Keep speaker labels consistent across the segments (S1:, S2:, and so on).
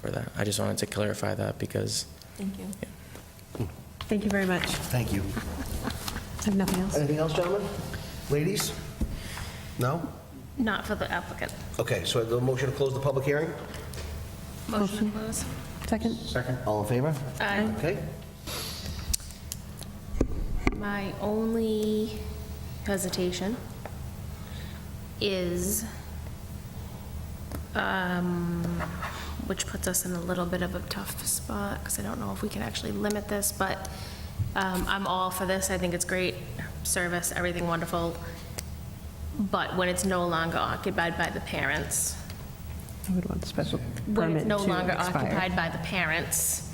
S1: for that. I just wanted to clarify that because
S2: Thank you.
S3: Thank you very much.
S4: Thank you.
S3: I have nothing else.
S4: Anything else, gentlemen? Ladies? No?
S5: Not for the applicant.
S4: Okay, so the motion to close the public hearing?
S5: Motion to close.
S3: Second?
S4: All in favor?
S5: Aye.
S4: Okay.
S5: My only hesitation is, um, which puts us in a little bit of a tough spot, because I don't know if we can actually limit this, but um, I'm all for this. I think it's great service, everything wonderful. But when it's no longer occupied by the parents,
S3: I would want the special
S5: when
S3: permit
S5: it's
S3: to
S5: no longer
S3: expire.
S5: occupied by the parents,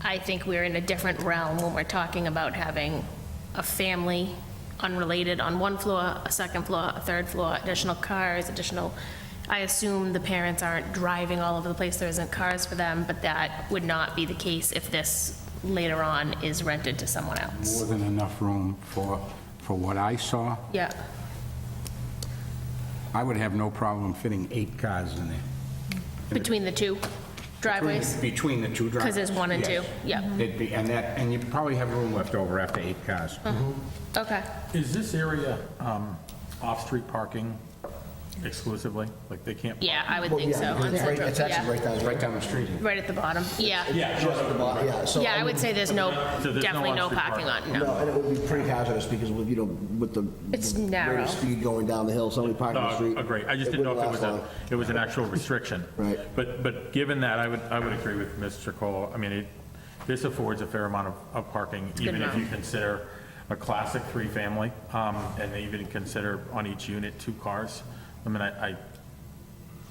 S5: I think we're in a different realm when we're talking about having a family unrelated on one floor, a second floor, a third floor, additional cars, additional, I assume the parents aren't driving all over the place, there isn't cars for them, but that would not be the case if this later on is rented to someone else.
S6: more than enough room for, for what I saw.
S5: Yeah,
S6: I would have no problem fitting eight cars in there.
S5: between the two driveways,
S6: Between the two drivers.
S5: because there's one and two,
S6: yes.
S5: yeah,
S6: It'd be, and that, and you probably have room left over after eight cars.
S5: Uh-huh. okay.
S7: Is this area um, off-street parking exclusively? Like, they can't?
S5: Yeah, I would think so. on
S4: It's right-
S5: Central,
S4: it's actually
S5: yeah.
S4: right down, right down the street.
S5: Right at the bottom, yeah.
S7: Yeah, no, no, no.
S4: Yeah, so. um,
S5: Yeah, I would say there's no,
S7: So there's no
S5: definitely no
S7: on-street
S5: parking on,
S4: No,
S5: no.
S4: and it would be pretty hazardous because with, you know, with the.
S5: It's
S4: the rate of
S5: narrow.
S4: Speed going down the hill, somebody parking the street.
S7: No, agree. Oh, I just didn't know if it
S4: wouldn't
S7: was
S4: last
S7: a,
S4: long.
S7: it was an actual restriction.
S4: Right.
S7: But, but given that, I would, I would agree with Mr. Cole. I mean, it, this affords a fair amount of, of parking, even if
S5: amount.
S7: you consider a classic three-family, um, and even consider on each unit two cars. I mean, I, I,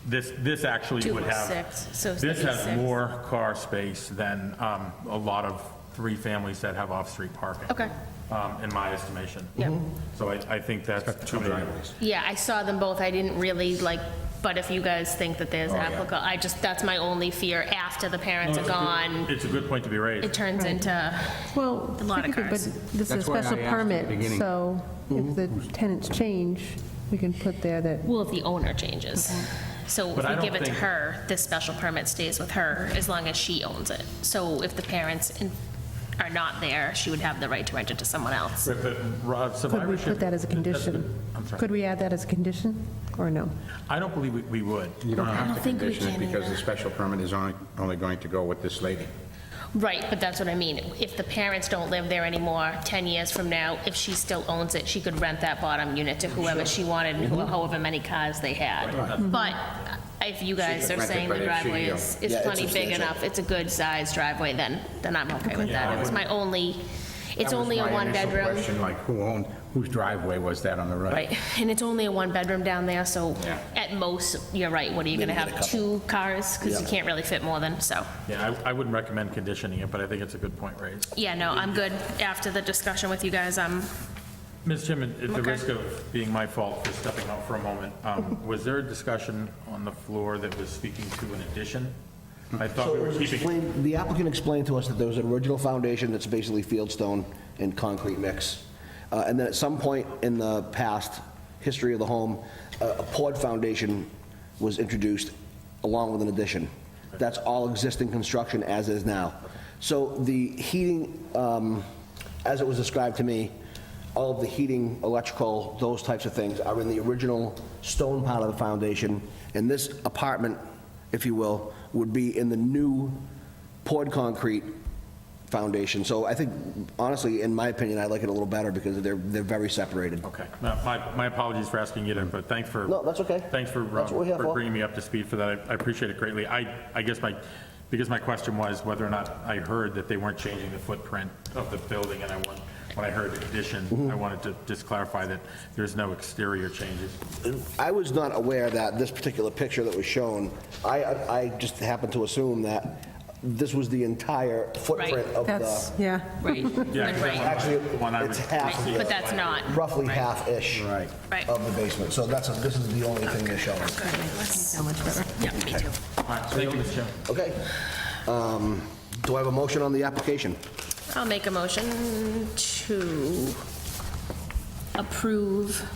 S7: this, this actually
S5: Two
S7: would
S5: plus
S7: have.
S5: six, so it's
S7: This
S5: gonna be
S7: has
S5: six.
S7: more car space than um, a lot of three families that have off-street parking.
S5: Okay.
S7: um, In my estimation.
S5: Yep.
S7: So I, I think that's too many.
S5: Yeah, I saw them both, I didn't really like, but if you guys think that there's applicable, I just, that's my only fear, after the parents are gone,
S7: Oh, It's a good point to be raised.
S5: it turns into,
S3: Well,
S5: A lot of
S3: technically,
S5: cars.
S3: but this is a
S6: That's why
S3: special
S6: I asked at the
S3: permit,
S6: beginning.
S3: so if the tenants change, we can put there that,
S5: well, if the owner changes. So
S7: Mm-hmm. But I
S5: if we
S7: don't
S5: give it to
S7: think-
S5: her, this special permit stays with her, as long as she owns it. So if the parents in- are not there, she would have the right to rent it to someone else.
S7: But- but,
S3: could
S7: Rob,
S3: we
S7: survivorship.
S3: put that as a
S7: that's good.
S3: condition?
S7: I'm
S3: Could
S7: sorry.
S3: we add that as a condition, or no?
S7: I don't believe we- we would.
S6: You don't have to
S5: think we
S6: condition it
S5: can
S6: because
S5: either.
S6: the special permit is only, only going to go with this lady.
S5: Right, but that's what I mean. If the parents don't live there anymore, 10 years from now, if she still owns it, she could rent that bottom unit to whoever she wanted and who-
S6: Mm-hmm.
S5: however many cars they had. But uh, if you guys are
S6: rent it,
S5: saying the
S6: but if she,
S5: driveway
S6: uh,
S5: is, is
S4: Yeah, it's
S5: plenty big
S4: substantial.
S5: enough, it's a good sized driveway, then, then I'm okay with that. It was my only, it's
S6: That was
S5: only a
S6: my
S5: one
S6: initial
S5: bedroom.
S6: question, Like, who owned, whose driveway was that on the right?
S5: Right, and it's only a one-bedroom down there, so
S6: Yeah.
S5: at most, you're right, what are you gonna have, two cars? Because you can't really fit more than, so.
S7: Yeah, I, I wouldn't recommend conditioning it, but I think it's a good point raised.
S5: Yeah, no, I'm good. After the discussion with you guys, I'm
S7: Ms. Chairman, at the
S5: Okay.
S7: risk of being my fault for stepping out for a moment,
S3: Mm-hmm.
S7: um, was there a discussion on the floor that was speaking to an addition? I thought
S4: So
S7: we
S4: it
S7: were
S4: was
S7: keeping,
S4: explained, the applicant explained to us that there was an original foundation that's basically fieldstone and concrete mix. Uh, And then at some point in the past history of the home, a a poured foundation was introduced along with an addition. That's all existing construction as is now. So the heating, um, as it was described to me, all of the heating, electrical, those types of things are in the original stone part of the foundation. And this apartment, if you will, would be in the new poured concrete foundation. So I think, honestly, in my opinion, I like it a little better because they're, they're very separated.
S7: okay, No, my, my apologies for asking you to, but thanks for.
S4: No, that's okay.
S7: Thanks for, uh,
S4: That's what we're here
S7: for
S4: for.
S7: bringing me up to speed for that. I- I appreciate it greatly. I, I guess my, because my question was whether or not I heard that they weren't changing the footprint of the building, and I want, when I heard
S4: Mm-hmm.
S7: addition, I wanted to just clarify that there's no exterior changes.
S4: I was not aware that this particular picture that was shown, I, I just happened to assume that this was the entire footprint of
S3: That's,
S4: the,
S3: yeah.
S5: Right,
S7: Yeah, 'cause
S5: right,
S7: that's
S4: actually,
S7: one- the one I
S4: it's
S7: was-
S4: half.
S5: Right,
S4: the-
S5: but that's not.
S4: Roughly
S5: Right.
S4: half-ish.
S6: Right.
S5: Right.
S4: Of the basement. So that's, this is the only thing they're showing.
S3: So much better.
S5: yeah, me too.
S7: All right, Thank you, Mr. Chairman.
S4: Okay. Um, Do I have a motion on the application?
S5: I'll make a motion to approve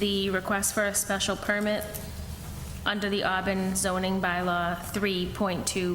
S5: the request for a special permit under the Auburn zoning bylaw 3.2